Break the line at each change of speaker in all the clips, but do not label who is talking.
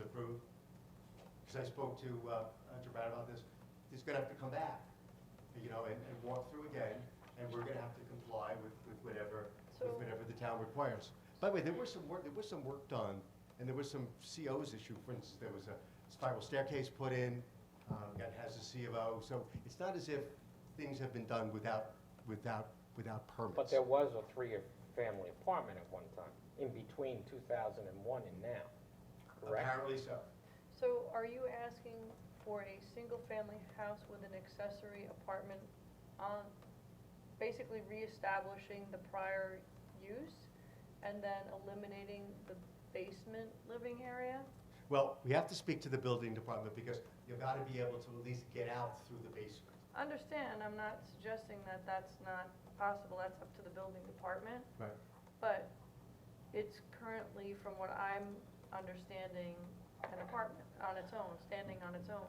approved, because I spoke to uh, uh, Gerard about this, he's gonna have to come back, you know, and, and walk through again, and we're gonna have to comply with, with whatever,
So-
with whatever the town requires. By the way, there was some work, there was some work done, and there was some COs issue, for instance, there was a spiral staircase put in, um, that has a CO, so it's not as if things have been done without, without, without permits.
But there was a three-family apartment at one time, in between 2001 and now, correct?
Apparently so.
So are you asking for a single-family house with an accessory apartment on, basically reestablishing the prior use and then eliminating the basement living area?
Well, we have to speak to the building department because you've got to be able to at least get out through the basement.
Understand, I'm not suggesting that that's not possible, that's up to the building department.
Right.
But it's currently, from what I'm understanding, an apartment on its own, standing on its own.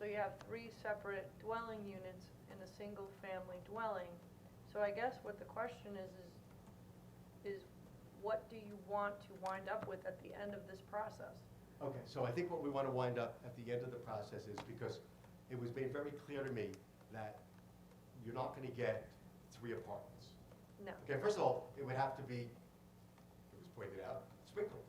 So you have three separate dwelling units in a single-family dwelling. So I guess what the question is, is, is what do you want to wind up with at the end of this process?
Okay, so I think what we want to wind up at the end of the process is because it was made very clear to me that you're not going to get three apartments.
No.
Okay, first of all, it would have to be, it was pointed out, sprinkled.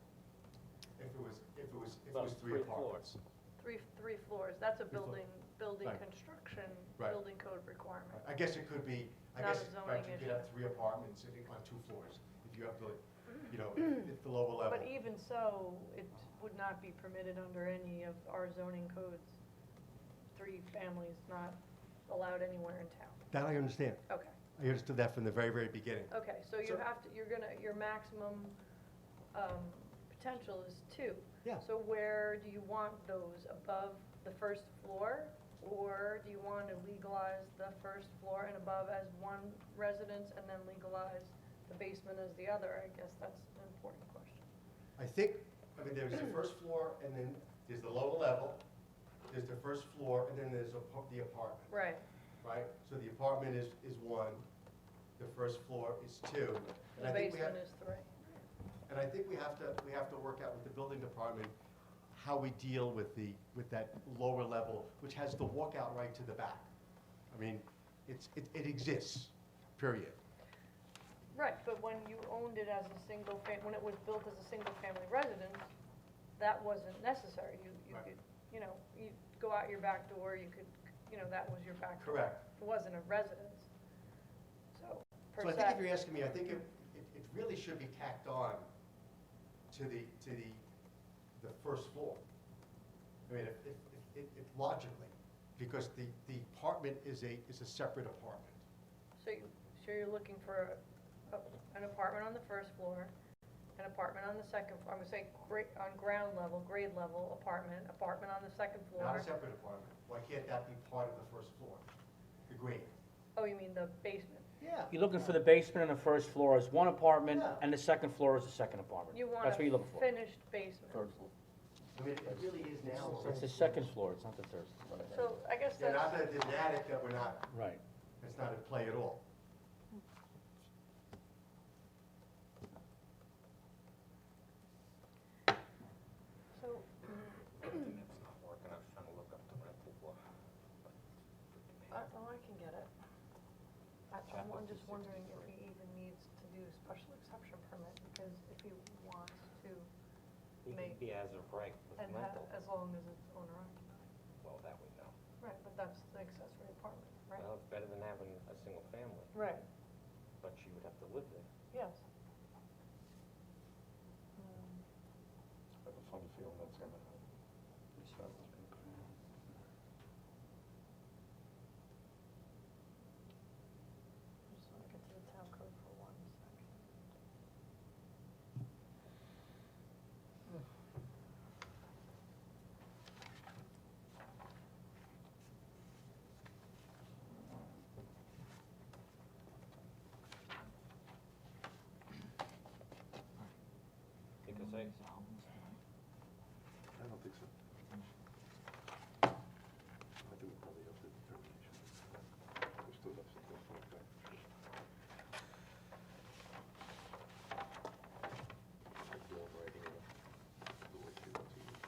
If it was, if it was, if it
Well,
was three
three
apartments.
Three, three floors, that's a
Three floors.
building, building
Right.
construction,
Right.
building code requirement.
I guess it could be, I
Not a
guess, right,
zoning
you
issue.
could have three apartments sitting on two floors if you have the, you know, if if the lower level.
But e- even so, it would not be permitted under any of our zoning codes. Three families not allowed anywhere in town.
That I understand.
Okay,
I understood that from the very, very beginning.
okay, so you
So-
have to, you're gonna, your maximum, um, potential is two.
Yeah.
So where do you want those, above the first floor? Or do you want to legalize the first floor and above as one residence and then legalize the basement as the other? I guess that's an important question.
I think, I mean, there's the first floor, and then there's the lower level, there's the first floor, and then there's apa- the apartment,
Right.
right? So the apartment is, is one, the first floor is two. and
The
I think we have-
basement is three.
And I think we have to, we have to work out with the building department how we deal with the, with that lower level, which has the walkout right to the back. I mean, it's, it it exists, period.
Right, but when you owned it as a single fam, when it was built as a single-family residence, that wasn't necessary. You, you
Right.
could, you know, you go out your back door, you could, you know, that was your back door.
Correct.
It wasn't a residence, so, per
So I think if
se.
you're asking me, I think it, it it really should be tacked on to the, to the, the first floor. I mean, if, if, if- if, if logically, because the, the apartment is a, is a separate apartment.
So you, so you're looking for a- an apartment on the first floor, an apartment on the second, floor. I'm gonna say gra- on ground level, grade level apartment, apartment on the second floor.
Not a separate apartment. Why can't that be part of the first floor? The grade?
Oh, you mean the basement?
Yeah.
You're looking for the basement and the first floor is one apartment,
Yeah.
and the second floor is the second apartment.
You want
That's
a
what you're looking for.
finished basement.
I mean, it really is now.
It's the second floor, it's not the third.
So I guess
Yeah,
that's,
not that it's an attic that we're not,
Right.
that's not at play at all.
so, mm,
Internet's not working, I was trying to look up the rental block.
I, oh, I can get it. I, I'm won- just wondering if he even needs to do a special exception permit, because if he wants to,
He
May-
could be as of right with
and uh, that,
rental,
as long as it's owner occupied.
well, that we know.
Right, but that's the accessory apartment, right?
Well, it's better than having a single family,
Right,
but you would have to live there.
yes.
I
Mm,
have a funny feeling that's gonna happen.